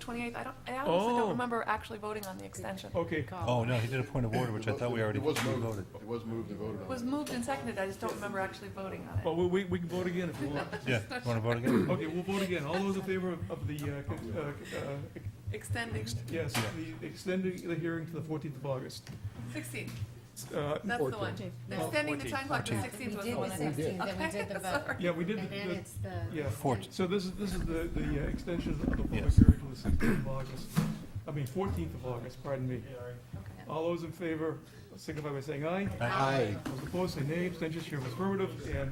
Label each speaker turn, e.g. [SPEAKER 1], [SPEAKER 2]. [SPEAKER 1] 28th, I don't, I honestly
[SPEAKER 2] Oh.
[SPEAKER 1] don't remember actually voting on the extension.
[SPEAKER 2] Okay.
[SPEAKER 3] Oh, no, he did a point of order, which I thought we already
[SPEAKER 4] It was
[SPEAKER 3] we
[SPEAKER 4] moved.
[SPEAKER 3] voted.
[SPEAKER 4] It was moved and voted
[SPEAKER 1] It
[SPEAKER 4] on.
[SPEAKER 1] was moved and seconded, I just don't remember actually voting on it.
[SPEAKER 2] Well, we- we, we can vote again if you want.
[SPEAKER 3] Yeah, you wanna vote again?
[SPEAKER 2] Okay, we'll vote again. All those in favor of- of the, uh, con- uh, uh,
[SPEAKER 1] Extending,
[SPEAKER 2] yes, the extending the hearing to the 14th of August.
[SPEAKER 1] 16,
[SPEAKER 2] Uh,
[SPEAKER 1] that's the one. Extending the time clock to
[SPEAKER 5] That's what
[SPEAKER 1] 16 was
[SPEAKER 5] We
[SPEAKER 1] the
[SPEAKER 5] did
[SPEAKER 1] one.
[SPEAKER 5] the
[SPEAKER 1] I
[SPEAKER 4] did.
[SPEAKER 5] sixteenth, then we did
[SPEAKER 1] Okay,
[SPEAKER 5] the vote.
[SPEAKER 1] sorry.
[SPEAKER 2] Yeah, we did,
[SPEAKER 5] And then
[SPEAKER 2] the-
[SPEAKER 5] it's the.
[SPEAKER 2] yeah.
[SPEAKER 3] Fort-
[SPEAKER 2] so this is, this is the, the uh, extension of the public
[SPEAKER 3] Yes.
[SPEAKER 2] hearing to the 16th of August. I mean, 14th of August, pardon me. All those in favor signify by saying aye.
[SPEAKER 3] Aye.
[SPEAKER 2] Those opposed, say nay. Abstentions, here affirmative, and